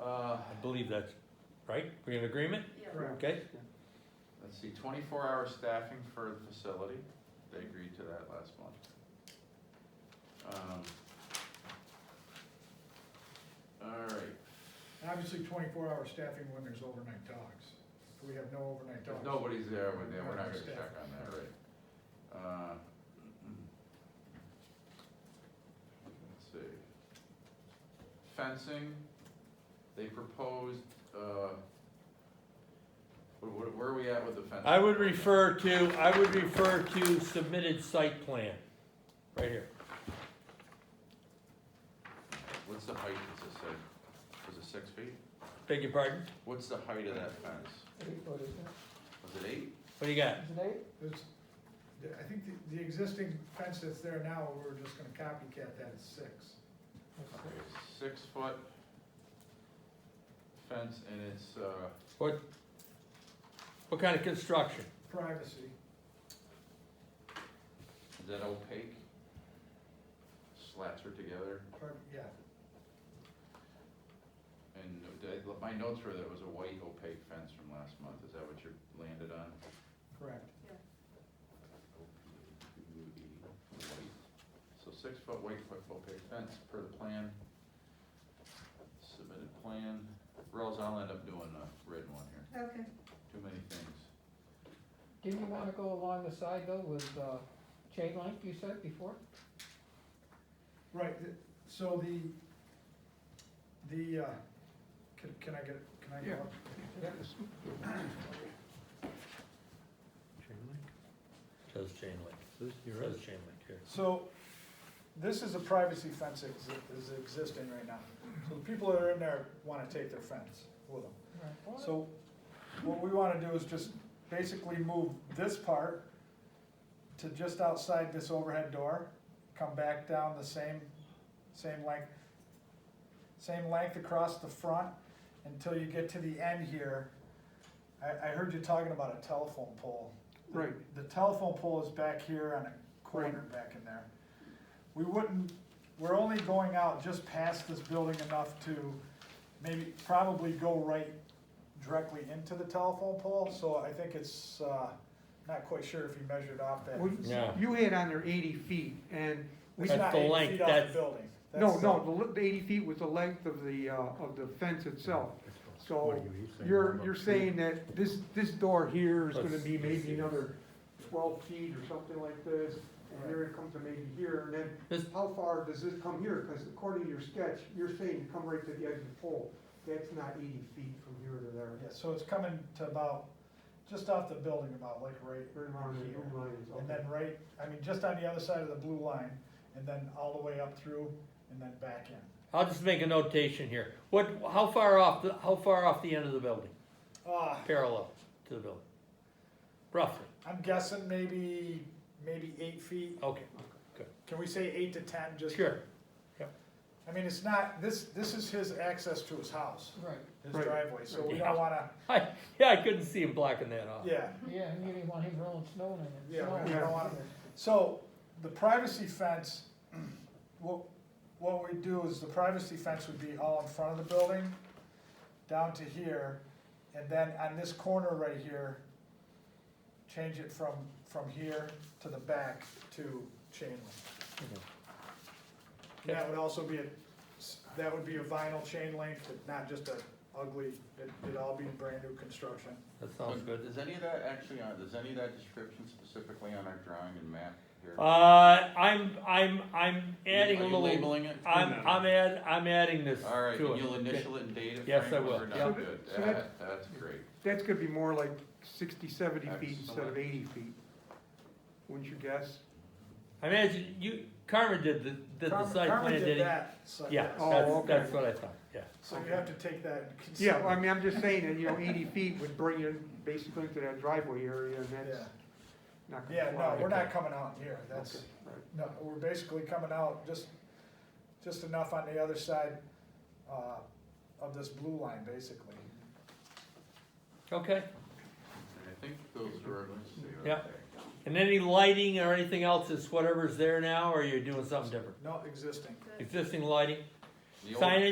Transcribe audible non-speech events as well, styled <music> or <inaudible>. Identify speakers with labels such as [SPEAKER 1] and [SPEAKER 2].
[SPEAKER 1] Uh,
[SPEAKER 2] I believe that's, right, we in agreement?
[SPEAKER 3] Right.
[SPEAKER 2] Okay,
[SPEAKER 1] let's see, twenty-four hour staffing for the facility, they agreed to that last month. Um, All right,
[SPEAKER 3] Obviously, twenty-four hour staffing when there's overnight dogs. If we have no overnight
[SPEAKER 1] if
[SPEAKER 3] dogs.
[SPEAKER 1] nobody's there, we're, then we're not gonna
[SPEAKER 3] Staff.
[SPEAKER 1] check on that, right? Uh, Let's see. Fencing, they proposed, uh, wh- wh- where are we at with the fencing?
[SPEAKER 2] I would refer to, I would refer to submitted site plan, right here.
[SPEAKER 1] What's the height, is it six, was it six feet?
[SPEAKER 2] Beg your pardon?
[SPEAKER 1] What's the height of that fence?
[SPEAKER 4] Eight foot, isn't it?
[SPEAKER 1] Was it eight?
[SPEAKER 2] What do you got?
[SPEAKER 4] Is it eight?
[SPEAKER 3] It's- the- I think the, the existing fence that's there now, we're just gonna copycat that at six.
[SPEAKER 1] Okay, Six foot fence and it's, uh,
[SPEAKER 2] What, what kind of construction?
[SPEAKER 3] Privacy,
[SPEAKER 1] is that opaque? Slats are together
[SPEAKER 3] part, yeah,
[SPEAKER 1] and I- my notes were that it was a white opaque fence from last month. Is that what you landed on?
[SPEAKER 3] correct.
[SPEAKER 1] White. So six foot white foot opaque fence per the plan. Submitted plan. Rose, I'll end up doing a red one here.
[SPEAKER 5] Okay,
[SPEAKER 1] Too many things.
[SPEAKER 4] Didn't you wanna go along the side though with, uh, chain link, you said before?
[SPEAKER 3] Right, th- so the, the, uh, can, can I get, can I
[SPEAKER 1] Yeah.
[SPEAKER 3] get up?
[SPEAKER 2] Chain link? Says chain link. Says chain link here.
[SPEAKER 3] So, this is a privacy fence that exi- is existing right now. So the people that are in there wanna take their fence with them. So what we wanna do is just basically move this part to just outside this overhead door, come back down the same, same length, same length across the front until you get to the end here. I, I heard you talking about a telephone pole.
[SPEAKER 6] Right,
[SPEAKER 3] The telephone pole is back here on a corner back in there. We wouldn't, we're only going out just past this building enough to maybe, probably go right directly into the telephone pole, so I think it's, uh, not quite sure if you measured off that.
[SPEAKER 6] Well,
[SPEAKER 2] Yeah.
[SPEAKER 6] you had on there eighty feet, and we,
[SPEAKER 3] It's
[SPEAKER 2] That's
[SPEAKER 3] not
[SPEAKER 2] the
[SPEAKER 3] eight
[SPEAKER 2] length,
[SPEAKER 3] feet off the
[SPEAKER 2] that's-
[SPEAKER 3] building.
[SPEAKER 6] no,
[SPEAKER 3] That's the-
[SPEAKER 6] no, the li- the eighty feet was the length of the, uh, of the fence itself. So, you're, you're saying that this, this door here is gonna be maybe another twelve feet or something like this, and here it comes to maybe here, and then,
[SPEAKER 2] This-
[SPEAKER 6] how far does this come here? Cause according to your sketch, you're saying to come right to the edge of the pole, that's not eighty feet from here to there.
[SPEAKER 3] uh, Yeah, so it's coming to about, just off the building about, like right,
[SPEAKER 6] Right around the room line is
[SPEAKER 3] and then
[SPEAKER 6] okay.
[SPEAKER 3] right, I mean, just on the other side of the blue line, and then all the way up through, and then back in.
[SPEAKER 2] I'll just make a notation here. What, how far off, the how far off the end of the building?
[SPEAKER 6] Ah,
[SPEAKER 3] Uh,
[SPEAKER 2] Parallel to the building? Roughly,
[SPEAKER 3] I'm guessing maybe, maybe eight feet,
[SPEAKER 2] okay,
[SPEAKER 3] can we say eight to ten, just?
[SPEAKER 2] sure.
[SPEAKER 3] I mean, it's not, this, this is his access to his house,
[SPEAKER 4] Right,
[SPEAKER 3] his
[SPEAKER 6] Right.
[SPEAKER 3] driveway, so we
[SPEAKER 2] Yeah.
[SPEAKER 3] don't wanna,
[SPEAKER 2] I, yeah, I couldn't see him blocking that off.
[SPEAKER 3] yeah.
[SPEAKER 4] yeah, and you didn't want him rolling snow in it.
[SPEAKER 3] Yeah,
[SPEAKER 4] Snow.
[SPEAKER 6] we
[SPEAKER 3] don't want So, the privacy fence, <clears throat> what, what we do is the privacy fence would be all in front of the building, down to here, and then on this corner right here, change it from, from here to the back to chain link. And That would also be a, that would be a vinyl chain link, but not just a ugly, it, it'd all be brand new construction.
[SPEAKER 2] That sounds good.
[SPEAKER 1] Is any of that actually on, is any of that description specifically on our drawing and map here?
[SPEAKER 2] Uh, I'm, I'm, I'm adding a
[SPEAKER 1] Are you
[SPEAKER 2] little,
[SPEAKER 1] labeling it?
[SPEAKER 2] I'm, I'm add, I'm adding this to it.
[SPEAKER 1] All right, and you'll
[SPEAKER 2] Okay.
[SPEAKER 1] initial it and date it,
[SPEAKER 2] Yes, I
[SPEAKER 1] Frank, when
[SPEAKER 2] will,
[SPEAKER 1] we're
[SPEAKER 2] yeah.
[SPEAKER 1] done? Good,
[SPEAKER 6] So that-
[SPEAKER 1] that, that's great.
[SPEAKER 6] That's gonna be more like 60, 70 feet instead
[SPEAKER 1] Excellent.
[SPEAKER 6] of eighty feet. Wouldn't you guess?
[SPEAKER 2] I imagine you, Carmen did the, did the
[SPEAKER 3] Carmen-
[SPEAKER 2] site
[SPEAKER 3] Carmen
[SPEAKER 2] plan,
[SPEAKER 3] did
[SPEAKER 2] did he?
[SPEAKER 3] that, so-
[SPEAKER 2] Yeah,
[SPEAKER 6] Oh,
[SPEAKER 2] that's,
[SPEAKER 6] okay.
[SPEAKER 2] that's what I thought, yeah.
[SPEAKER 3] So you have to take that into
[SPEAKER 6] Yeah,
[SPEAKER 3] consideration.
[SPEAKER 6] well, I mean, I'm just saying that, you know, eighty feet would bring you basically to that driveway area, and that's
[SPEAKER 3] Yeah.
[SPEAKER 6] not gonna
[SPEAKER 3] Yeah,
[SPEAKER 6] fly.
[SPEAKER 3] no, we're not coming out here,
[SPEAKER 6] Okay,
[SPEAKER 3] that's,
[SPEAKER 6] right.
[SPEAKER 3] no, we're basically coming out just, just enough on the other side, uh, of this blue line, basically.
[SPEAKER 2] Okay,
[SPEAKER 1] And I think those were, let's see. what
[SPEAKER 2] Yeah.
[SPEAKER 1] they-
[SPEAKER 2] and any lighting or anything else is whatever's there now, or you're doing something different?
[SPEAKER 3] No, existing.
[SPEAKER 2] Existing lighting,
[SPEAKER 1] The old-
[SPEAKER 2] signage?